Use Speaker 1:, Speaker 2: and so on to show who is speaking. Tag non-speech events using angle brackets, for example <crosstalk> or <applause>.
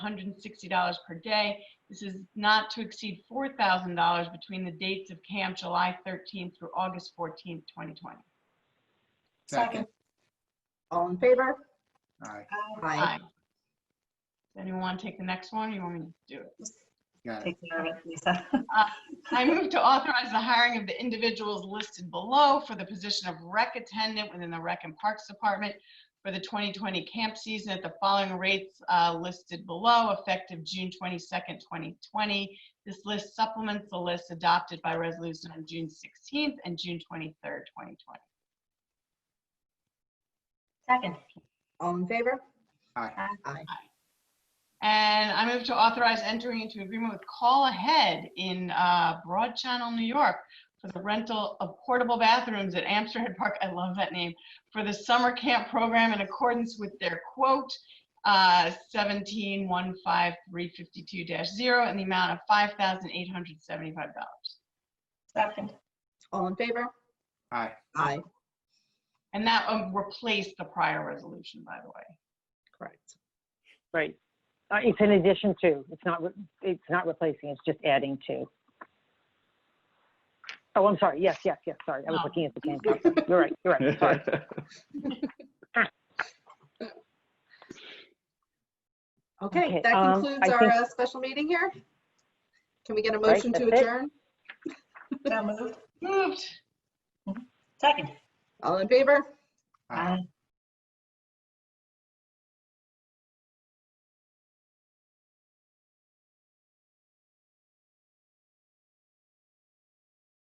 Speaker 1: $160 per day. This is not to exceed $4,000 between the dates of camp July 13th through August 14th, 2020.
Speaker 2: Second.
Speaker 3: All in favor?
Speaker 2: Aye,
Speaker 1: Aye. Does anyone want to take the next one? or You want me to do it?
Speaker 2: got it.
Speaker 4: Take care of it, Lisa.
Speaker 1: <laughs> I move to authorize the hiring of the individuals listed below for the position of rec attendant within the Rec and Parks Department for the 2020 camp season at the following rates uh, listed below, effective June 22nd, 2020. This list supplements the list adopted by resolution on June 16th and June 23rd, 2020.
Speaker 4: Second,
Speaker 3: All in favor?
Speaker 2: Aye,
Speaker 3: Aye.
Speaker 1: And I move to authorize entering into agreement with Call Ahead in uh, Broad Channel, New York for the rental of portable bathrooms at Amsterdam Park, I love that name, for the summer camp program in accordance with their quote, uh, 1715352-0 and the amount of $5,875.
Speaker 4: second,
Speaker 3: All in favor?
Speaker 2: aye,
Speaker 3: Aye,
Speaker 1: And that um, replaced the prior resolution, by the way.
Speaker 3: correct.
Speaker 5: Right. Uh, It's in addition to, it's not, re- it's not replacing, it's just adding to. Oh, I'm sorry. Yes, yes, yes, sorry. I was
Speaker 1: No.
Speaker 5: looking at the same person. You're right, you're right, sorry.
Speaker 3: Okay,
Speaker 5: Okay,
Speaker 3: that
Speaker 5: um,
Speaker 3: concludes
Speaker 5: I
Speaker 3: our
Speaker 5: think-
Speaker 3: uh, special meeting here. Can we get a
Speaker 5: Right,
Speaker 3: motion to
Speaker 5: that's it.
Speaker 3: adjourn?
Speaker 4: so moved,
Speaker 1: Moved.
Speaker 4: second.
Speaker 3: All in favor?
Speaker 2: aye.
Speaker 4: Aye.